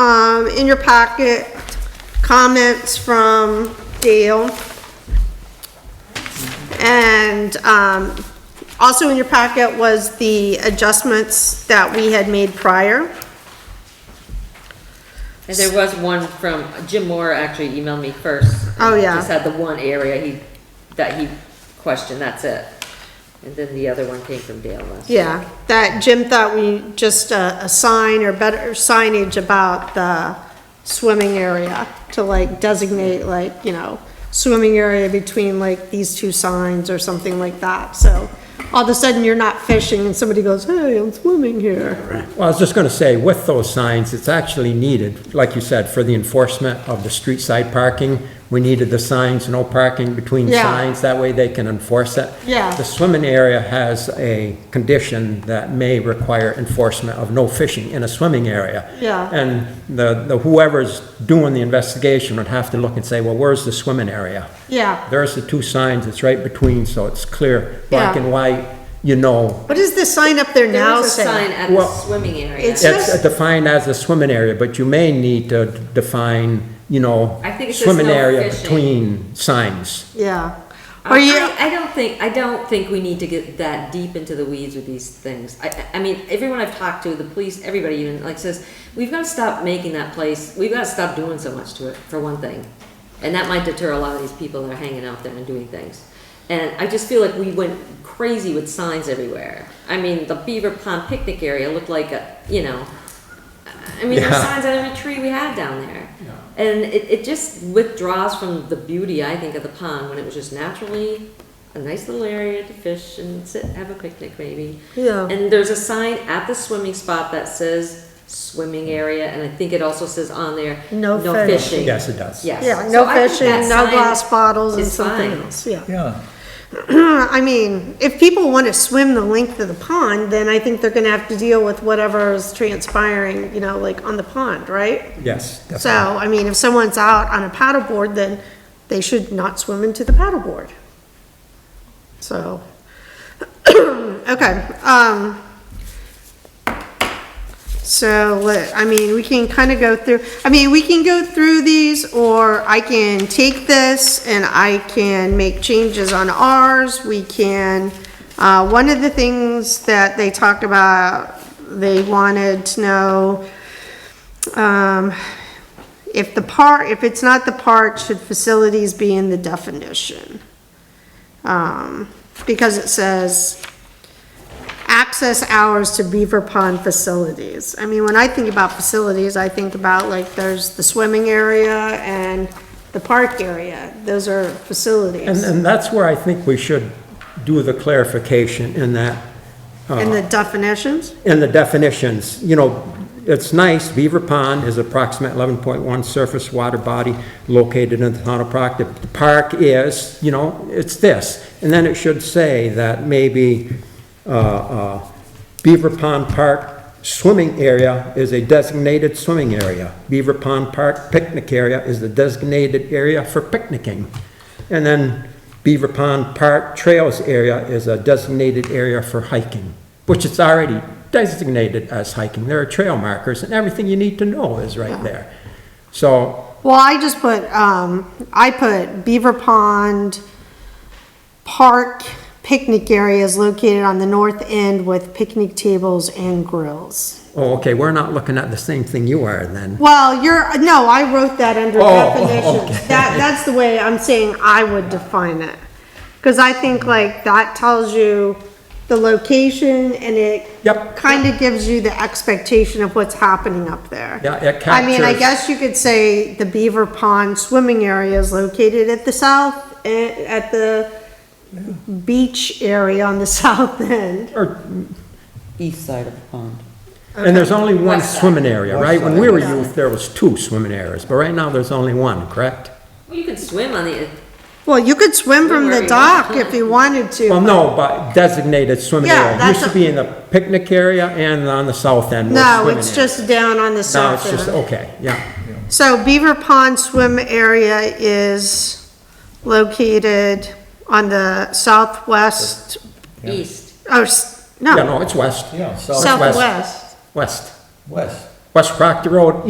um, in your packet, comments from Dale. And, um, also in your packet was the adjustments that we had made prior. And there was one from, Jim Moore actually emailed me first. Oh, yeah. Just had the one area he, that he questioned, that's it. And then the other one came from Dale last. Yeah, that Jim thought we, just uh, a, a sign or better signage about the swimming area to like designate like, you know, swimming area between like these two signs or something like that, so all of a sudden you're not fishing and somebody goes, hey, I'm swimming here. Well, I was just going to say, with those signs, it's actually needed, like you said, for the enforcement of the street side parking. We needed the signs, no parking between Yeah. signs, that way they can enforce it. Yeah. The swimming area has a condition that may require enforcement of no fishing in a swimming area. Yeah. And the, the whoever's doing the investigation would have to look and say, well, where's the swimming area? Yeah, There's the two signs, it's right between, so it's clear, black Yeah. and white, you know what is this sign up there There now was a sign say? at the Well, swimming area. it's- It's defined as a swimming area, but you may need to define, you know, I think it says swimming no area fishing. between signs. Yeah, I- are you, I, I don't think, I don't think we need to get that deep into the weeds with these things. I- I, I mean, everyone I've talked to, the police, everybody even, like says, we've gotta stop making that place, we've gotta stop doing so much to it, for one thing. And that might deter a lot of these people that are hanging out there and doing things. And I just feel like we went crazy with signs everywhere. I mean, the Beaver Pond picnic area looked like a, you know, I mean, there were Yeah. signs on every tree we had down there. And it, it just withdraws from the beauty, I think, of the pond when it was just naturally a nice little area to fish and sit, have a picnic maybe. Yeah. And there's a sign at the swimming spot that says swimming area, and I think it also says on there, No no fish. fishing. Yes, it does. Yes. yeah, So no I think fishing, that no sign glass bottles and is something fine. else, yeah. Yeah, I mean, if people want to swim the length of the pond, then I think they're gonna have to deal with whatever is transpiring, you know, like on the pond, right? Yes. definitely. So, I mean, if someone's out on a paddleboard, then they should not swim into the paddleboard. So, okay, um, so let, I mean, we can kind of go through, I mean, we can go through these, or I can take this and I can make changes on ours, we can, uh, one of the things that they talked about, they wanted to know, um, if the park, if it's not the park, should facilities be in the definition? Um, because it says access hours to Beaver Pond facilities. I mean, when I think about facilities, I think about like there's the swimming area and the park area. Those are And, facilities and that's where I think we should do the clarification in that, and the definitions. in the definitions. You know, it's nice, Beaver Pond is approximate 11.1 surface water body located in the town of Proctor. The park is, you know, it's this. And then it should say that maybe uh, uh, Beaver Pond Park swimming area is a designated swimming area. Beaver Pond Park picnic area is the designated area for picnicking. And then Beaver Pond Park Trails area is a designated area for hiking, which it's already designated as hiking. There are trail markers and everything you need to know is right there. So, Well, I just put, um, I put Beaver Pond Park picnic areas located on the north end with picnic tables and grills. oh, okay, we're not looking at the same thing you are then. Well, you're, no, I wrote that under Oh, oh, definitions. That, that's the way I'm saying I would define it. Cause I think like that tells you the location and it Yep. kinda gives you the expectation of what's happening up there. Yeah, it I mean, I captures- guess you could say the Beaver Pond swimming area is located at the south, eh, at the beach area on the south end. Or east side of the pond. And there's only one West side. swimming area, West right? When side. we were youth, there was two swimming areas, but right now there's only one, correct? Well, you can swim on the, Well, you could swim from the dock if you wanted Well, to. no, but designated swimming Yeah, area. It used that's to a- be in the picnic area and on the south end was No, swimming it's area. just down on the No, south it's just, end. okay, yeah. So Beaver Pond swim area is located on the southwest, east, oh, s- Yeah, no, no, it's west, yeah, south, southwest. west. west. West Proctor Road